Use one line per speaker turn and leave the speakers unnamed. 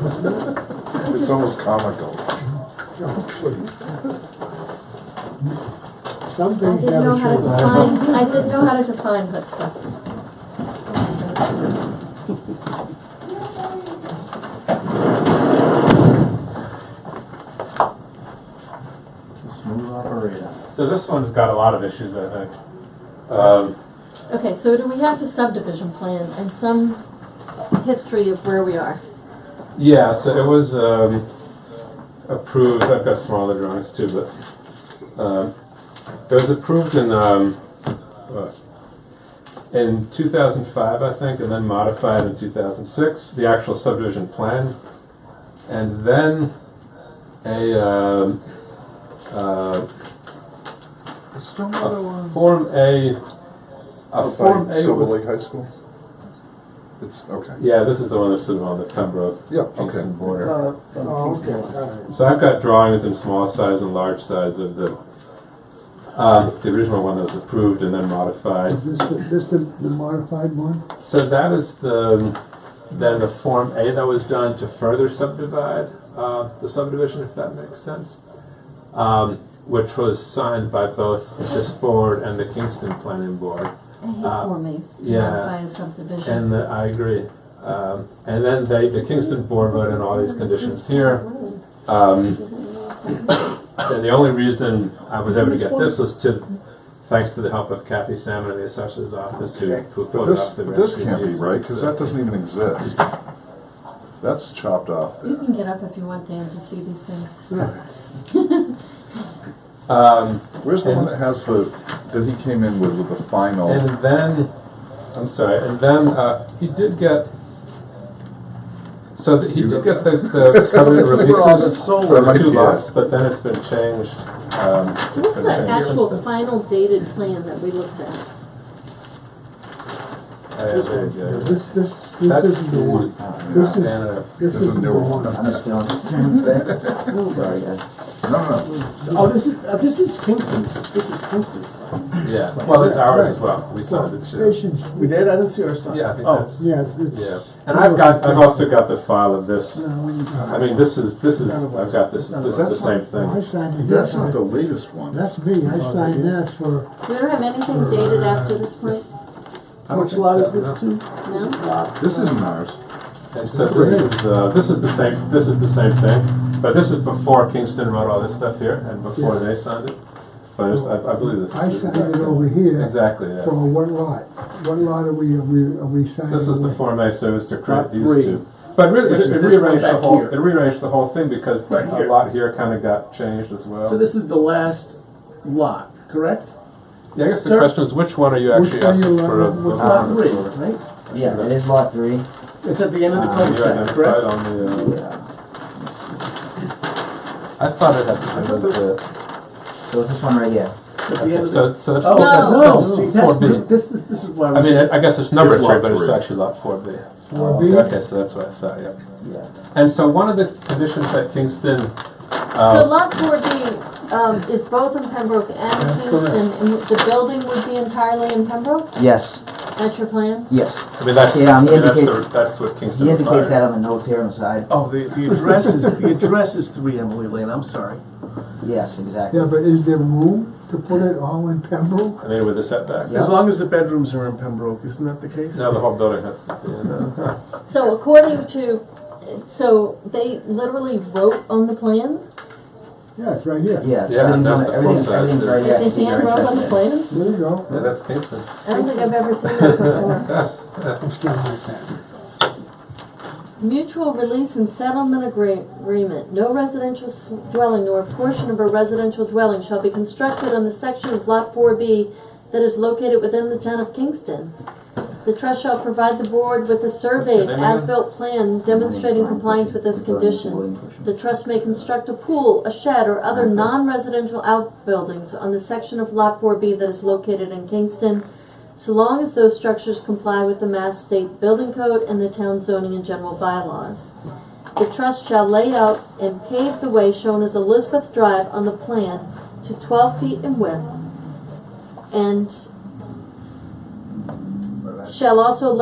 It's almost comical.
No, please.
Some
I
things
didn't know
never
how to
change.
define, I didn't know how to define chutzpah.
Smooth operator.
So this one's got a lot of issues, I think. Um,
Okay, so do we have the subdivision plan and some history of where we are?
yeah, so it was um, approved. I've got smaller drawings too, but um, it was approved in um, uh, in 2005, I think, and then modified in 2006. The actual subdivision plan, and then a. Um, uh,
The stormwater
A
one.
Form A. A Form A
Oh, Silver
was.
Lake High School? It's, okay.
Yeah, this is the one that's sort of on the Pembroke
Yeah,
Kingston
okay.
border.
Uh,
Oh, okay, alright.
So I've got drawings in small size and large size of the, uh, the original one that was approved and then modified.
Is this, the- this the the modified one?
So that is the, then the Form A that was done to further subdivide, uh, the subdivision, if that makes sense. Um, which was signed by both this board and the Kingston Planning Board.
I hate
Uh,
Form As to
yeah.
modify a subdivision.
And the, I agree. Um, and then they, the Kingston board voted on all these conditions here. Um, and the only reason I was able to get this was to, thanks to the help of Kathy Salmon in the assessor's office who, who
But
put
this,
up the.
but this
registry
can't be
deeds.
right, because that doesn't even exist. That's chopped off
You
there.
can get up if you want, Dan, to see these things.
Um,
Where's the one
And-
that has the, that he came in with, with the final?
and then, I'm sorry, and then, uh, he did get, so that he did get the, the covenant releases
Or
for
might
the two
be
lots,
it.
but then it's been changed, um,
What's
it's been
the
changed since
actual
then.
final dated plan that we looked at?
Uh, there you go.
This, this, this
That's
isn't the one. This is,
Anna.
this
This is
isn't the
newer.
one.
I'm just feeling. Sorry, guys.
No, no,
Oh, this is uh, this is Kingston's. This is Kingston's.
Yeah, well, it's ours
right.
as well. We signed it too.
Stations,
We did. I didn't see our sign.
Yeah, I think
oh.
that's,
yeah, it's, it's. uh,
yeah. And I've got, I've also got the file of this.
No, we didn't see
I
it.
mean, this is, this is, I've got this, this is the same
Oh, I
thing.
signed it,
no. That's
that's,
not the latest one.
that's me, I signed that for,
We don't have anything dated after this point,
Which lot is this too?
no?
This isn't ours.
And so this is, uh, this is the same, this is the same thing. But this is before Kingston wrote all this stuff here and before
Yeah.
they signed it. But it's- I, I believe this is.
I
the
signed
exact
it
same.
over here.
Exactly,
for
yeah.
one lot. One lot are we, are we, are we signing?
This was the
with?
Form A, so it was to create
Lot three.
these two. But really,
Which
it
is
it
this one
rearranged the
back
whole,
here.
it rearranged the whole thing because that
Right here.
lot here kind of got changed as well.
So this is the last lot, correct?
Yeah, I guess the
Sir?
question is which one are you
Which
actually
one
asking
you
for?
want?
a-
Which
a-
lot
a-
three,
for?
right?
Yeah, it is lot three.
It's at the end of the
Uh,
Ah, You
cul-de-sac,
identified
correct?
on the,
Yeah.
uh, I thought it had to be the,
So it's this one right here.
At the end of the.
so, so that's,
Oh,
that's,
No.
no, see,
that's
that's,
four B.
this, this, this is why.
I mean, I I guess it's number
It's lot
three, but it's
three.
actually lot four B.
Four B?
Okay, so that's what I thought, yeah.
Yeah.
And so one of the conditions that Kingston,
So
um,
lot four B, um, is both in Pembroke and
That's
Kingston, and the building would be entirely in Pembroke?
Yes,
That's your plan?
yes.
I mean, that's,
Yeah,
I
I'm
mean, that's
indicate-
the, that's what Kingston
He indicates that
required.
on the notes here on the side.
Oh, the, the address is, the address is three Emily Lane, I'm sorry.
Yes, exactly.
Yeah, but is there room to put it all in Pembroke?
I mean, with the setbacks.
Yeah.
As long as the bedrooms are in Pembroke, isn't that the case?
Now the whole building has to be in, uh,
So according to, so they literally wrote on the plan?
Yeah, it's right here.
Yeah,
Yeah,
everything's
that's
on
the full
the, everything's,
size,
everything's
yeah.
right here.
They hand wrote on the plan?
There you go.
yeah, that's Kingston.
I don't think I've ever seen that before.
It's not like that.
Mutual release and settlement agree- agreement. No residential s- dwelling nor portion of a residential dwelling shall be constructed on the section of lot four B that is located within the town of Kingston. The trust shall provide the board with a survey of
name again?
as-built plan demonstrating compliance with this condition. The trust may construct a pool, a shed, or other non-residential outbuildings on the section of Lot 4B that is located in Kingston, so long as those structures comply with the Mass State Building Code and the town zoning and general bylaws. The trust shall lay out and pave the way shown as Elizabeth Drive on the plan to 12 feet in width and shall also